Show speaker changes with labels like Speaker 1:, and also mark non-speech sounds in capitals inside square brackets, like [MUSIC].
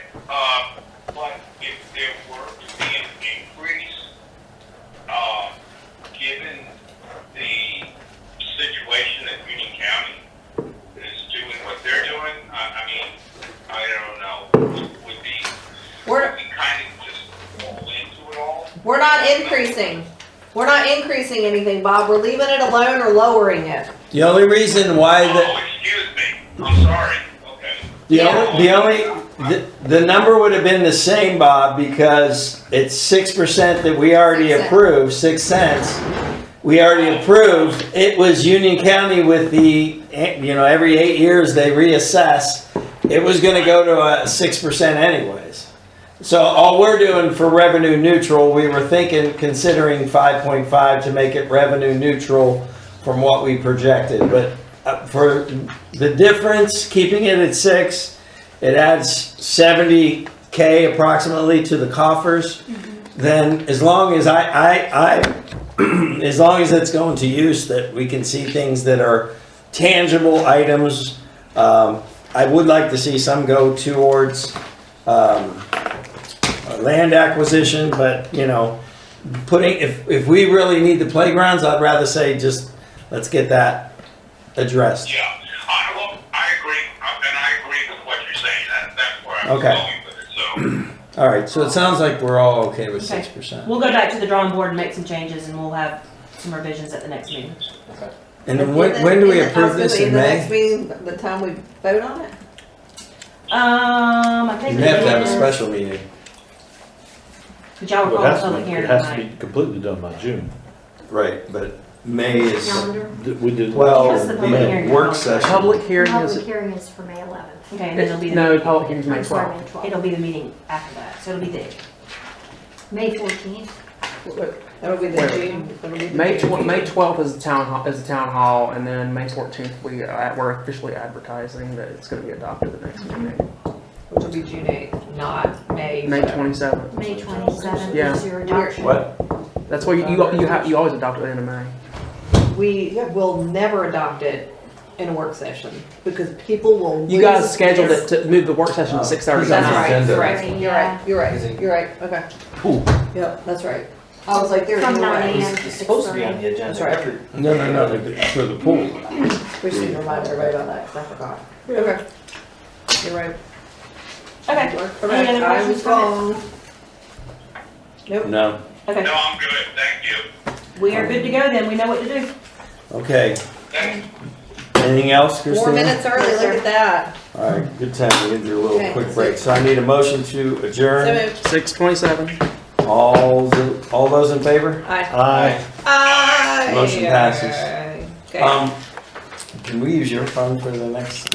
Speaker 1: Um, their work being increased, um, given the situation that Union County is doing what they're doing, I, I mean, I don't know, would be, would
Speaker 2: We're,
Speaker 1: we kind of just fall into it all?
Speaker 2: we're not increasing. We're not increasing anything, Bob. We're leaving it alone or lowering it.
Speaker 3: The only reason why the,
Speaker 1: Oh, excuse me, I'm sorry, okay.
Speaker 3: the only, the only, the, the number would have been the same, Bob, because it's six percent that we already
Speaker 2: Six cents.
Speaker 3: approved, six cents. We already approved. It was Union County with the, eh, you know, every eight years they reassess. It was gonna go to a six percent anyways. So all we're doing for revenue neutral, we were thinking, considering five point five to make it revenue neutral from what we projected, but uh, for the difference, keeping it at six, it adds seventy K approximately to the coffers. Then as long as I, I, I, [CLEARS THROAT] as long as it's going to use that we can see things that are tangible items. Um, I would like to see some go towards, um, uh, land acquisition, but, you know, putting, if, if we really need the playgrounds, I'd rather say just, let's get that addressed.
Speaker 1: Yeah, I, well, I agree, I- and I agree with what you're saying, that, that's where I'm
Speaker 3: Okay.
Speaker 1: going with it, so.
Speaker 3: All right, so it sounds like we're all okay with
Speaker 4: Okay.
Speaker 3: six percent.
Speaker 4: We'll go back to the drawing board and make some changes and we'll have some revisions at the next meeting.
Speaker 3: And then when, when do we approve this in
Speaker 2: The next
Speaker 3: May?
Speaker 2: meeting, the time we vote on it?
Speaker 4: Um, I
Speaker 3: You
Speaker 4: think.
Speaker 3: may have to have a
Speaker 4: it is-
Speaker 3: special meeting.
Speaker 4: But y'all
Speaker 5: Well,
Speaker 4: recall
Speaker 5: It
Speaker 4: the
Speaker 5: has to
Speaker 4: public
Speaker 5: be,
Speaker 4: hearing
Speaker 5: it has to
Speaker 4: tonight.
Speaker 5: be completely done by June.
Speaker 3: Right, but May is,
Speaker 5: Th- We did.
Speaker 3: well,
Speaker 4: What's the public
Speaker 3: the
Speaker 4: hearing?
Speaker 3: work session.
Speaker 6: Public hearing
Speaker 7: Public
Speaker 6: is,
Speaker 7: hearing is for May 11th.
Speaker 4: Okay, and then it'll be, the
Speaker 6: no, public hearing's May
Speaker 7: I'm sorry,
Speaker 6: 12th.
Speaker 7: May 12th.
Speaker 4: it'll be the meeting after that, so it'll be the,
Speaker 7: May 14th.
Speaker 2: That'll be the
Speaker 6: Where?
Speaker 2: June. that'll be the
Speaker 6: May
Speaker 2: June
Speaker 6: tw- May
Speaker 2: meeting.
Speaker 6: twelfth is the town hall, is the town hall, and then May fourteenth, we, uh, we're officially advertising that it's gonna be adopted the next meeting.
Speaker 2: Which will be June eighth, not May.
Speaker 6: May twenty-seventh.
Speaker 7: May 27th
Speaker 6: Yeah.
Speaker 7: is your adoption.
Speaker 3: What?
Speaker 6: That's why you, you, you have, you always adopt it in May.
Speaker 2: We will never adopt it in a work session because people will.
Speaker 6: You guys
Speaker 2: lose
Speaker 6: scheduled
Speaker 2: their-
Speaker 6: it to move the work session to six thirty.
Speaker 3: That's
Speaker 2: That's right,
Speaker 3: Agenda.
Speaker 2: that's right, you're right, you're right, you're right, okay.
Speaker 3: Ooh.
Speaker 2: Yep, that's right. I was like, there's
Speaker 7: From
Speaker 2: no
Speaker 7: 9
Speaker 2: way.
Speaker 7: a.m. to 6:30.
Speaker 2: That's right.
Speaker 3: No, no, no, for the pool.
Speaker 2: We should remind everybody about that, 'cause I forgot. Okay. You're right.
Speaker 4: okay,
Speaker 2: You're
Speaker 4: Any
Speaker 2: correct.
Speaker 4: other
Speaker 2: I was
Speaker 4: questions from it?
Speaker 2: wrong. Nope.
Speaker 3: No.
Speaker 4: okay.
Speaker 1: No, I'm good, thank you.
Speaker 4: We are good to go then, we know what to do.
Speaker 3: Okay,
Speaker 1: Thank
Speaker 3: anything else, Christine?
Speaker 2: Four minutes early, look at that.
Speaker 3: All right, good time, we can do a
Speaker 2: Okay.
Speaker 3: little quick break. So I need a motion to
Speaker 2: So
Speaker 3: adjourn.
Speaker 2: moved.
Speaker 6: Six twenty-seven.
Speaker 3: All, the- all those in favor?
Speaker 2: Aye.
Speaker 5: Aye.
Speaker 2: Aye.
Speaker 3: Motion passes.
Speaker 2: Okay.
Speaker 3: Um, Can we use your phone for the next?